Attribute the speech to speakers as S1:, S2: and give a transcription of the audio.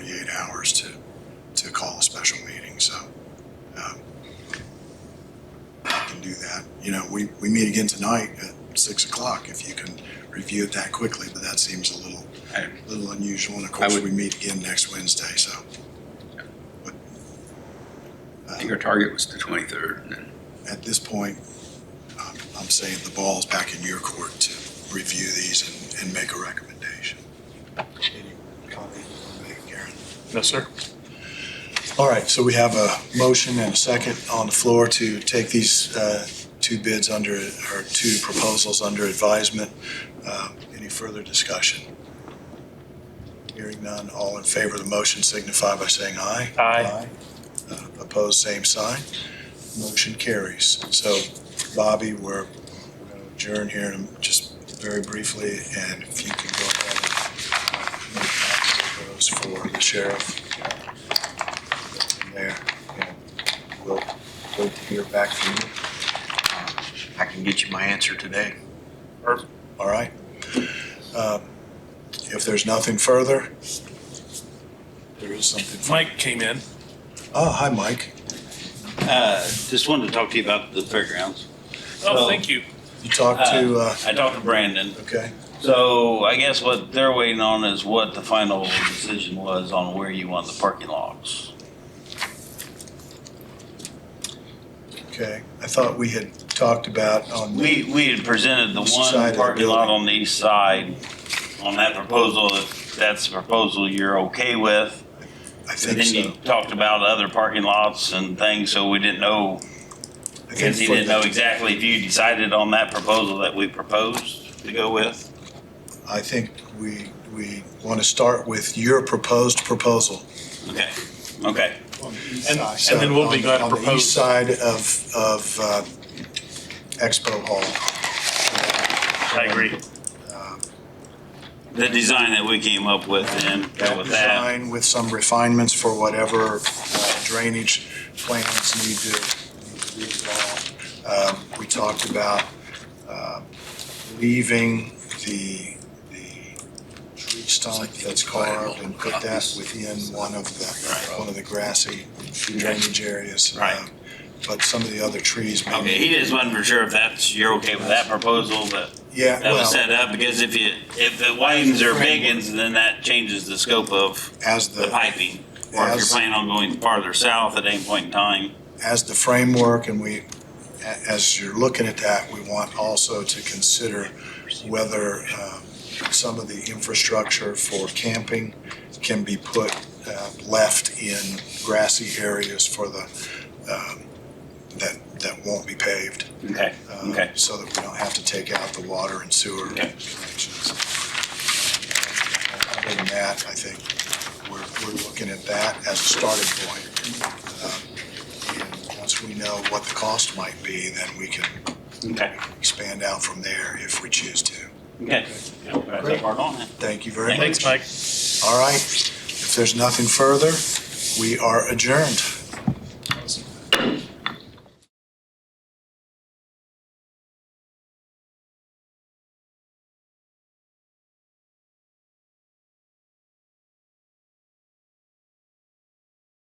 S1: um, you know, we, we meet again tonight at six o'clock. If you can review it that quickly, but that seems a little,
S2: I-
S1: little unusual. And of course,
S2: would-
S1: we meet again next Wednesday, so. But,
S2: I
S1: uh,
S2: think our target was the 23rd, and then
S1: At this point, I'm, I'm saying the ball's back in your court to review these and, and make a recommendation. Any comment you wanna make, Karen?
S3: No, sir.
S1: All right, so we have a motion and a second on the floor to take these uh, two bids under, or two proposals under advisement. Um, Any further discussion? Hearing none, all in favor of the motion signify by saying aye.
S3: Aye.
S1: Uh, Opposed, same sign. Motion carries. So Bobby, we're we're going to adjourn here in just very briefly, and if you can go ahead and make copies of those for the sheriff. uh, from There, and we'll wait to hear back from you.
S4: I can get you my answer today.
S1: All right. Um, If there's nothing further, there is something. fu-
S3: Mike came in.
S1: Oh, hi, Mike.
S5: Uh, Just wanted to talk to you about the fairgrounds.
S3: Oh,
S5: So-
S3: thank you.
S1: You talked to, uh,
S5: I talked to Brandon.
S1: okay,
S5: So I guess what they're waiting on is what the final decision was on where you want the parking lots.
S1: okay. I thought we had talked about on. the-
S5: We, we had presented the
S1: East side of the
S5: one parking lot
S1: building.
S5: on the east side on that proposal. If that's the proposal you're okay with.
S1: I
S5: And
S1: think
S5: then you
S1: so.
S5: talked about other parking lots and things, so we didn't know,
S1: I think
S5: because he
S1: for
S5: didn't know
S1: the-
S5: exactly if you decided on that proposal that we proposed to go with.
S1: I think we, we want to start with your proposed proposal.
S5: Okay, okay.
S3: And- and then we'll be
S1: On the-
S3: glad to
S1: On the
S3: propose.
S1: east side of, of uh, Expo Hall.
S3: I agree.
S5: The design that we came up with and go with that.
S1: Design with some refinements for whatever uh, drainage plans need to need to be involved. Um, We talked about um, leaving the, the tree stump that's carved and put that within one of the,
S5: Right.
S1: one of the grassy drainage areas.
S5: Right.
S1: Um, But some of the other trees
S5: Okay,
S1: maybe.
S5: he just wasn't for sure if that's, you're okay with that proposal, but
S1: Yeah,
S5: that was
S1: well,
S5: set up because if you, if it widens or biggins, then that changes the scope of
S1: as
S5: the piping. Or if you're
S1: As-
S5: planning on going farther south at any point in time.
S1: as the framework and we, a- as you're looking at that, we want also to consider whether um, some of the infrastructure for camping can be put, uh, left in grassy areas for the, um, that, that won't be paved.
S5: Okay,
S1: uh,
S5: okay.
S1: So that we don't have to take out the water and sewer
S5: Okay.
S1: connections. Other than that, I think we're, we're looking at that as a starting point. Um, and Once we know what the cost might be, then we can
S5: Okay,
S1: expand out from there if we choose to.
S5: okay. Yeah, we're gonna take part on it.
S1: Thank you very much.
S3: Thanks, Mike.
S1: All right, if there's nothing further, we are adjourned.